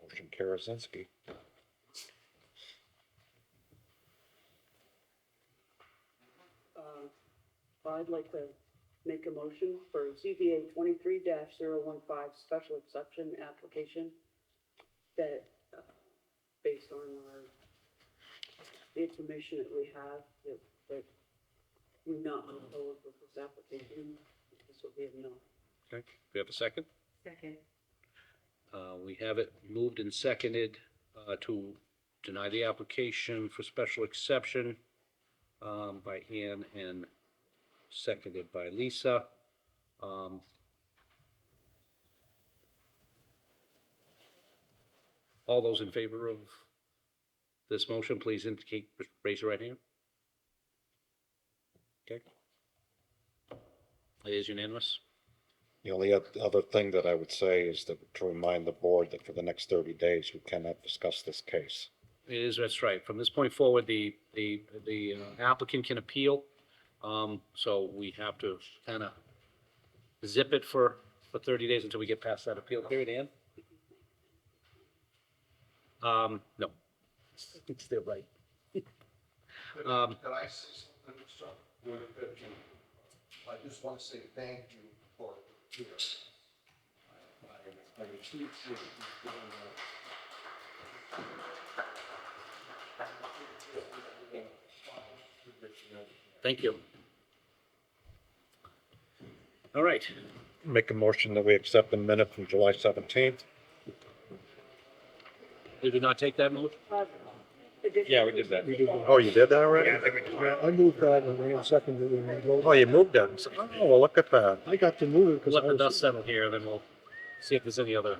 Motion Karazinski. Uh, I'd like to make a motion for ZBA twenty-three 15 special exception application that, uh, based on our, the information that we have, that, that we not move forward with this application, this will be a no. Okay, we have a second? Second. Uh, we have it moved and seconded, uh, to deny the application for special exception, um, by Ann and seconded by Lisa. Um, all those in favor of this motion, please indicate, raise your right hand. Okay. It is unanimous. The only oth- other thing that I would say is that to remind the board that for the next thirty days, we cannot discuss this case. It is, that's right. From this point forward, the, the, the uh, applicant can appeal. Um, so we have to kind of zip it for, for thirty days until we get past that appeal period, Ann? Um, no. It's still right. Could Um, could I say something, Mr. Chairman? I just want to say thank you for your. I- I- I appreciate you doing that. Thank you. All right, Make a motion that we accept the minute from July seventeenth. did we not take that move? Uh, Yeah, we did that. Oh, you did that already? I moved that and ran second to Oh, you moved that. Oh, well, look at that. I got to move it Let the dust settle here, then we'll see if there's any other.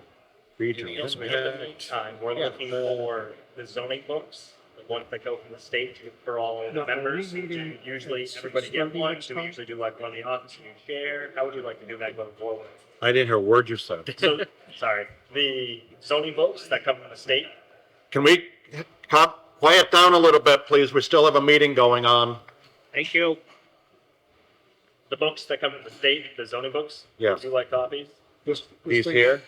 Anything else we have in the meantime, we're Yeah. looking for the zoning books, the ones that go from the state to- for all the members. Do you Usually, everybody get one, do we usually do like one in the office, you share, how would you like to do that going forward? I didn't hear a word you said. So, sorry, the zoning books that come from the state, Can we calm, quiet down a little bit, please? We still have a meeting going on. thank you. The books that come from the state, the zoning books? Yeah. Would you like copies? He's here.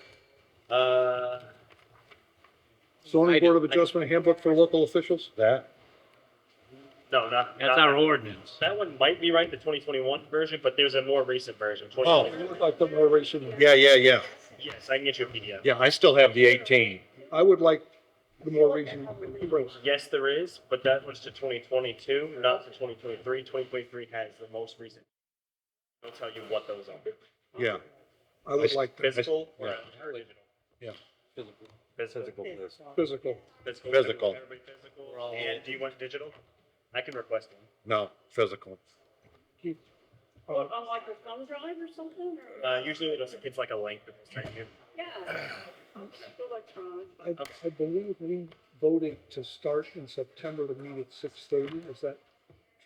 Uh, I do- Zoning Board of I do. Adjustment handbook for local officials? That, no, not. That's not- our ordinance. That one might be right, the twenty twenty-one version, but there's a more recent Oh. version, 2021. I would like the more recent- Yeah, yeah, yeah. Yes, I can get you a PDF. Yeah, I still have the 18. I would like the more recent. version. Yes, there is, but that was to twenty twenty-two, not to twenty twenty-three. Twenty twenty-three has the most recent. I'll tell you what those are. Yeah. I would like the Physical or original? Yeah. Physical. physical. Physical. Physical. Everybody physical. And do you want digital? I can request one. No, physical. On Oh, like a thumb drive or something, or? Uh, usually it's, it's like a link. that they send you. Yeah. Electronic. I, I believe we voted to start in September to meet at six thirty, is that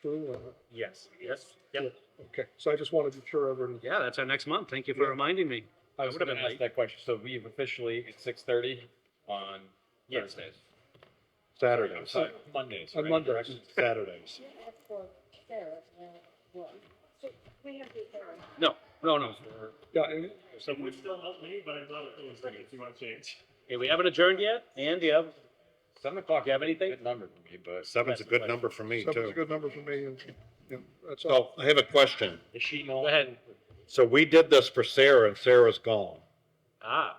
true or not? Yes, yes, yep. Okay, so I just want to be sure everyone. Yeah, that's our next month. Thank you for reminding me. I was would've gonna been ask late. that question, so we have officially, it's six thirty on Yes. Thursdays. I'm Saturdays, sorry, Mondays. On right? Monday. Correct? Saturdays. We have the hearing. No, no, no. Yeah, and So we still help me, but I thought it was like, if you want to change. Hey, we haven't adjourned yet? And do you have, Seven o'clock. Do you have anything? Good number for me, but Seven's a good number for me, seven's a too. good number for me, and, yeah, that's all. So I have a question. is she no? go ahead. So we did this for Sarah and Sarah's gone. Ah,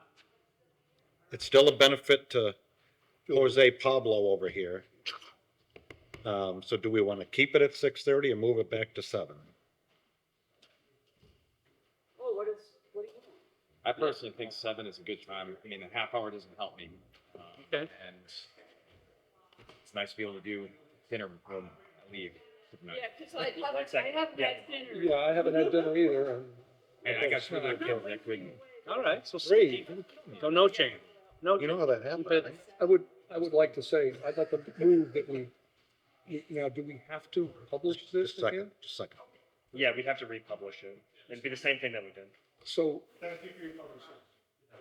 It's still a benefit to Jose Pablo over here. Um, so do we want to keep it at 6:30 or move it back to 7? Oh, what is, what do you? I personally think seven is a good time. I mean, a half hour doesn't help me. Um, Okay. And it's nice to be able to do dinner before I leave. tonight. Yeah, because I One haven't, I second. haven't had Yeah, dinner. I haven't had dinner either, and And I got some other kids that couldn't. all right, so Three. So no change. No, You know how that happened, Keep it- right? I would, I would like to say, I'd like to move that we, we- now, do we have to publish this Just a second, again? just a second. Yeah, we'd have to republish it. It'd be the same thing that we did. So,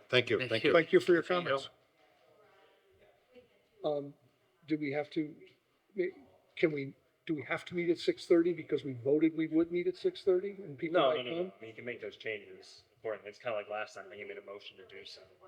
Thank you, Thank thank you. you. thank you for your There you go. comments. Um, do we have to, can we, do we have to meet at six thirty because we voted we would meet at six thirty and people No, might no, come? no, no. You can make those changes accordingly. It's kind of like last time when you made a motion to do so.